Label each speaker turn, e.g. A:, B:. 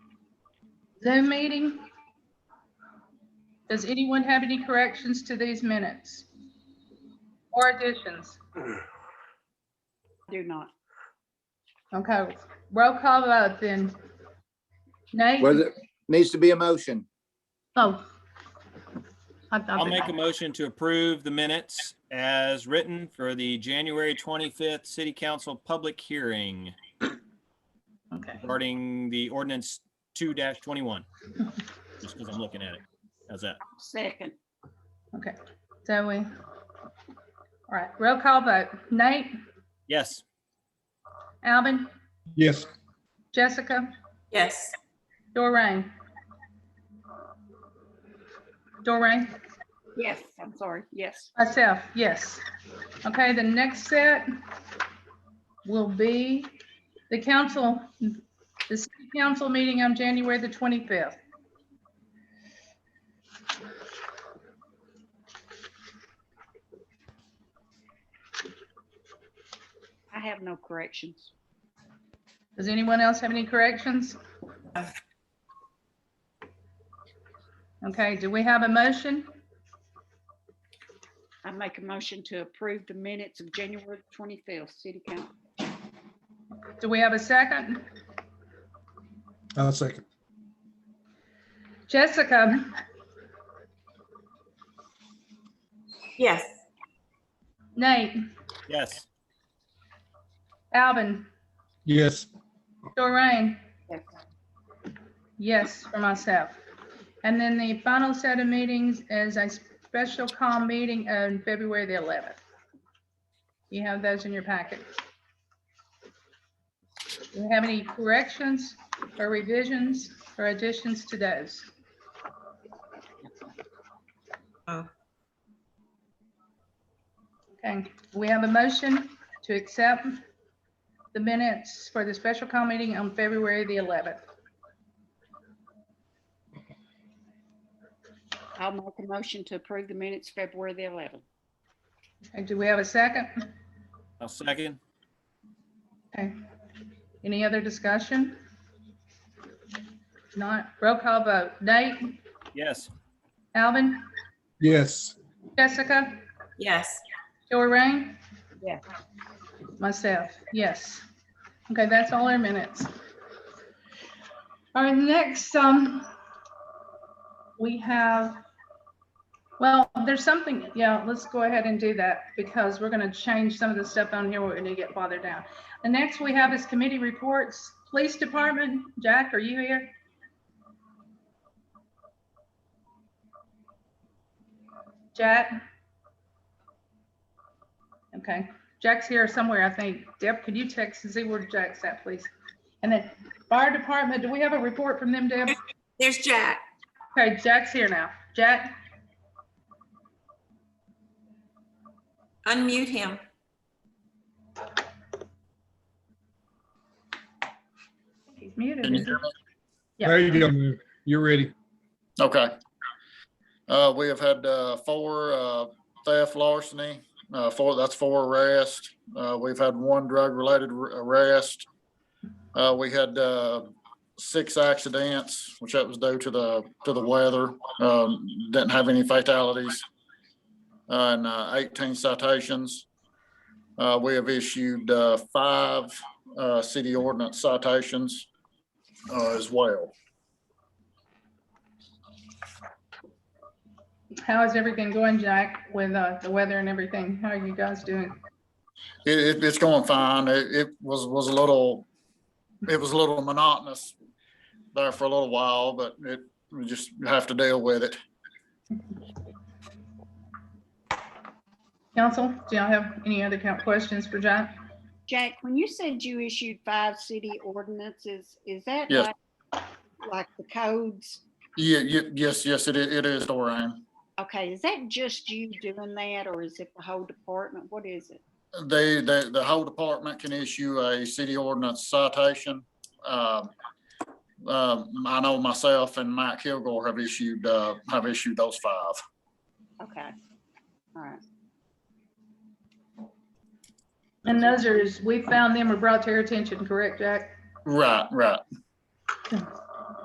A: Zoom meeting. Does anyone have any corrections to these minutes? Or additions?
B: Do not.
A: Okay, roll call vote then. Nate?
C: Whether, needs to be a motion.
A: Oh. I
D: I'll
A: thought
D: make a
A: that-
D: motion to approve the minutes as written for the January 25th City Council public hearing
A: Okay.
D: regarding the ordinance 2-21. Just because I'm looking at it. How's that?
B: Second,
A: Okay, Zoe. All right, roll call vote. Nate,
D: Yes,
A: Alvin,
E: Yes.
A: Jessica,
F: Yes.
A: Doreen. Doreen,
B: yes, I'm sorry, yes.
A: myself, yes. Okay, the next set will be the council, the city council meeting on January the 25th.
B: I have no corrections.
A: Does anyone else have any corrections? Okay, do we have a motion?
B: I make a motion to approve the minutes of January twenty-fifth, city council.
A: Do we have a second?
E: I'll second.
A: Jessica,
F: Yes.
A: Nate,
D: yes,
A: Alvin,
E: Yes.
A: Doreen,
B: Yes.
A: yes, for myself. And then the final set of meetings is a special call meeting on February the 11th. You have those in your packet. Do you have any corrections or revisions or additions to those?
F: Oh.
A: Okay, we have a motion to accept the minutes for the special call meeting on February the 11th.
B: I'll make a motion to approve the minutes February the eleventh.
A: Okay, do we have a second?
D: I'll second.
A: Okay. Any other discussion? Not, roll call vote. Nate,
D: Yes,
A: Alvin,
E: Yes.
A: Jessica,
F: Yes.
A: Doreen?
B: Yes.
A: Myself, yes. Okay, that's all our minutes. All right, next, um, we have, well, there's something, yeah, let's go ahead and do that because we're gonna change some of the stuff on here. We're gonna get farther down. The next we have is committee reports. Police Department, Jack, are you here? Jack? Okay, Jack's here somewhere, I think. Deb, could you text and see where Jack's at, please? And then fire department, do we have a report from them, Deb?
F: There's Jack.
A: Okay, Jack's here now. Jack,
F: Unmute him.
A: he's muted.
G: Can you
A: isn't he?
G: hear me?
A: Yeah.
E: There you go. Lou. You're ready.
G: Okay. Uh, we have had, uh, four, uh, theft larceny, uh, four, that's four arrests. Uh, we've had one drug-related r- arrest. Uh, we had, uh, six accidents, which that was due to the, to the weather. Um, didn't have any fatalities. Uh, And, uh, eighteen citations. Uh, we have issued, uh, five, uh, city ordinance citations, uh, as well.
A: How is everything going, Jack, with uh, the weather and everything? How are you guys doing?
G: It, it, it's going fine. It, it was, was a little, it was a little monotonous there for a little while, but it, we just have to deal with it.
A: Council, do y'all have any other count questions for Jack?
B: Jack, when you said you issued five city ordinances, is that
G: Yes.
B: like, like the codes?
G: Yeah, ye- yes, yes, it, i- it is, Doreen.
B: Okay, is that just you doing that or is it the whole department? What is it?
G: They, the, the whole department can issue a city ordinance citation. Um, um, I know myself and Mike Kilgore have issued, uh, have issued those five.
B: Okay, all right.
A: And those are, we found them or brought to your attention, correct, Jack?
G: Right, right.
A: All